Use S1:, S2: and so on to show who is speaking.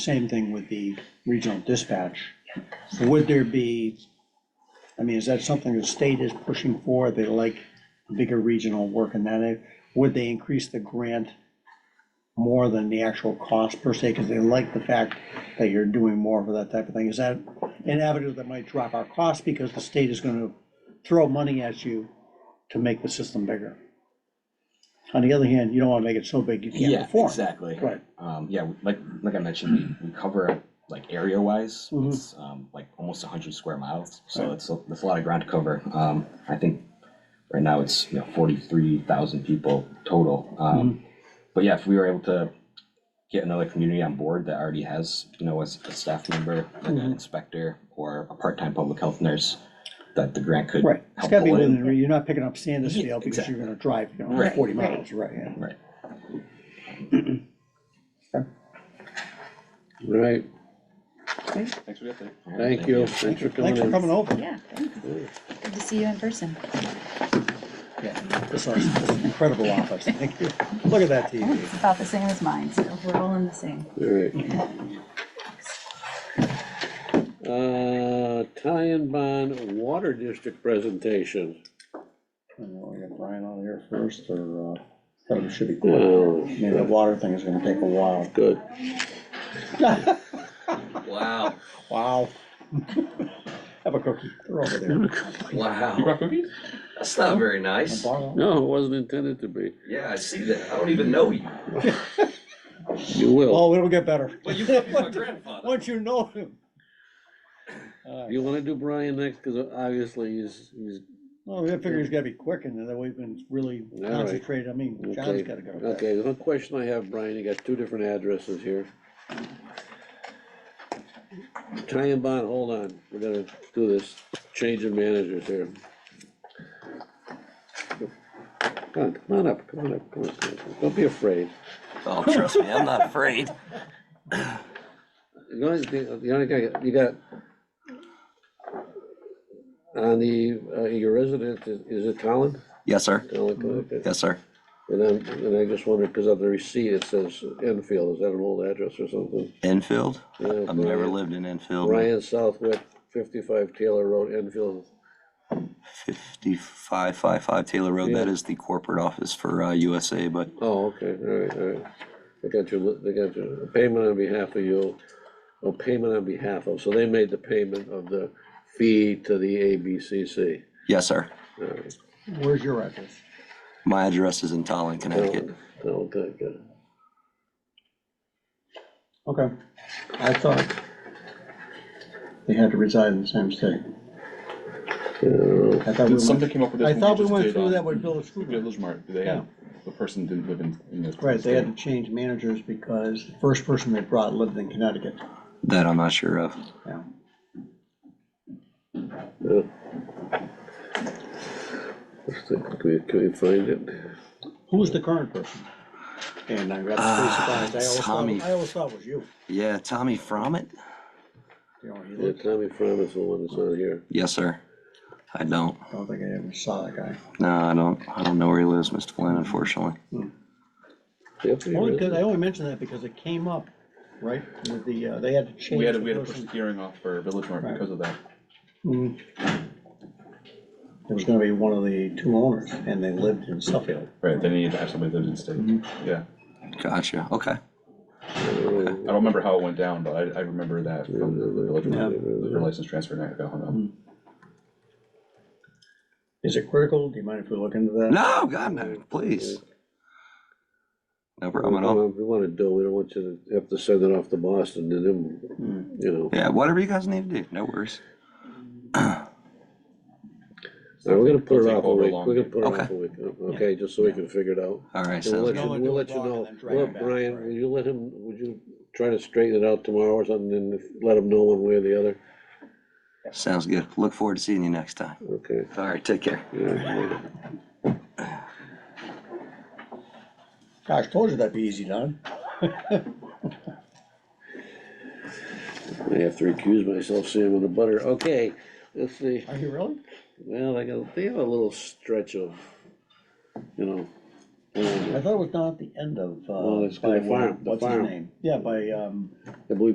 S1: Same thing with the regional dispatch. Would there be, I mean, is that something the state is pushing for? They like bigger regional work in that area. Would they increase the grant more than the actual cost per se? Because they like the fact that you're doing more for that type of thing. Is that an avenue that might drop our costs because the state is gonna throw money at you to make the system bigger? On the other hand, you don't wanna make it so big you can't
S2: Yeah,
S1: perform.
S2: exactly.
S1: Right.
S2: Um, yeah, we- like, like I mentioned, we, we cover like area wise,
S1: Mhm.
S2: it's, um, like almost hundred square miles, so
S1: Right.
S2: it's, a- it's a lot of ground to cover. Um, I think right now it's, you know, forty-three thousand people total.
S1: Mm-hmm.
S2: Um, but yeah, if we were able to get another community on board that already has, you know, a, s- a staff member, like an
S1: Mhm.
S2: inspector, or a part-time public health nurse, that the grant could
S1: Right, it's
S2: help
S1: gotta be
S2: pull
S1: within,
S2: in.
S1: re- you're not picking up
S2: Yeah,
S1: Sandusville because you're gonna drive, you know,
S2: Right,
S1: forty
S3: right.
S1: miles, right, yeah.
S2: Right.
S4: Right,
S2: Thanks for the update. All right,
S4: thank you, thanks for coming
S1: Thanks for
S4: in.
S1: coming over.
S3: Yeah, thanks. Good to see you in person.
S1: Yeah, This is this is incredible office, thank you. Look at that
S3: Oh,
S1: TV.
S3: It's about the same as mine, so we're all in the same.
S4: Alright. Uh, tie and bond water district presentation.
S1: I don't know, we got Brian on here first, or, uh, probably should be quick.
S4: Oh,
S1: I mean, the water thing is gonna take a while.
S4: good.
S5: Wow,
S1: Wow. Have a cookie, they're over there.
S5: wow. That's not very nice.
S1: Borrow.
S4: No, it wasn't intended to be.
S5: Yeah, I see that. I don't even know you.
S4: You will.
S1: Oh, it'll get better.
S5: Well, you could be my grandfather.
S1: Once you know him. All right.
S4: You wanna do Brian next, cause obviously he's, he's,
S1: Well, I figure he's gotta be quick, and then we've been really
S4: All right.
S1: concentrated, I mean, John's
S4: Okay.
S1: gotta go.
S4: okay, the one question I have, Brian, you got two different addresses here. Tie and bond, hold on, we're gonna do this, change of managers here. Come on, come on up, come on up, come on up, come on up. don't be afraid.
S5: Oh, trust me, I'm not afraid.
S4: The only thing, the only thing, you got on the, uh, your resident, is is it Colin?
S5: Yes, sir.
S4: Colin, okay.
S5: Yes, sir.
S4: And I'm, and I just wondered, because on the receipt, it says Enfield, is that an old address or something?
S5: Enfield?
S4: Yeah,
S5: I've never
S4: Brian-
S5: lived in Enfield.
S4: Brian Southwick, fifty-five Taylor Road, Enfield,
S5: Fifty-five, five, five Taylor Road. That
S4: Yeah.
S5: is the corporate office for uh, USA, but
S4: oh, okay, all right, all right. They got your, they got your payment on behalf of you, oh, payment on behalf of, so they made the payment of the fee to the ABCC.
S5: yes, sir.
S4: All right,
S1: Where's your address?
S5: My address is in Tallinn, Connecticut.
S4: Colin, Colin, good, good.
S1: Okay, I thought they had to reside in the same state.
S4: Yeah,
S1: I thought we
S6: Something
S1: went,
S6: came up with this.
S1: I
S6: when
S1: thought we
S6: just
S1: went
S6: did um,
S1: through
S6: on
S1: that with Village Food.
S6: Village Mart, they had, the person didn't live in, in this.
S1: Right, they had to
S6: state.
S1: change managers because the first person they brought lived in Connecticut.
S5: That I'm not sure of.
S1: Yeah.
S4: yeah. Let's see, Can we, can we find it?
S1: Who was the current person? And I got pretty surprised, I always
S5: Tommy.
S1: thought, I always thought it was you.
S5: Yeah, Tommy Frommett?
S1: You know, he
S4: Yeah,
S1: looked,
S4: Tommy Fromm is the one that's on here.
S5: Yes, sir. I don't.
S1: I don't think I ever saw that guy.
S5: No, I don't. I don't know where he lives, Mr. Flynn, unfortunately.
S4: Yep, he
S1: Only
S4: is.
S1: because, I only mentioned that because it came up, right, with the, uh, they had to change.
S6: We had, to-
S1: the
S6: we had to push
S1: person.
S6: the hearing off for Village Mart
S1: Right.
S6: because of that.
S1: Mhm. It was gonna be one of the two owners, and they lived in Suffield.
S6: Right, they needed to have somebody lives in state,
S1: Mm-hmm.
S6: yeah.
S5: Gotcha. Okay.
S4: Uh,
S6: I don't remember how it went down, but I, I remember that from the Village Mart,
S1: Yeah. Mm-hmm.
S6: for license transfer, and I go, hold on.
S1: Is it critical? Do you mind if we look into that?
S5: No, God, no, please. No problem at all.
S4: We wanna do, we don't want you to have to send it off to Boston
S1: Hmm.
S4: and then, you know.
S5: Yeah, whatever you guys need to do, no worries.
S4: All right, we're gonna put
S6: It'll
S4: it
S6: take
S4: off a
S6: over
S4: week,
S6: long.
S4: we're gonna put it
S5: Okay.
S4: off a week, uh, okay, just so we can figure it out.
S5: All
S4: And
S5: right,
S4: we'll
S5: sounds
S4: let
S5: good.
S4: you-
S1: No,
S4: We'll
S1: do a
S4: let you
S1: blog and
S4: know,
S1: then drag
S4: well,
S1: it back,
S4: Brian,
S1: right.
S4: would you let him, would you try to straighten it out tomorrow or something, and if- let him know one way or the other?
S5: Sounds good. Look forward to seeing you next time.
S4: Okay.
S5: All right, take care.
S4: yeah.
S1: Gosh, told you that'd be easy, Don.
S4: I have to recuse myself, Sam, on the butter, okay, let's see,
S1: Are you really?
S4: well, I got, they have a little stretch of, you know. uh,
S1: I thought it was down at the end of, uh.
S4: Well, it's by
S1: by
S4: farm, the
S1: What's his
S4: farm.
S1: name? Yeah, by, um.
S4: I believe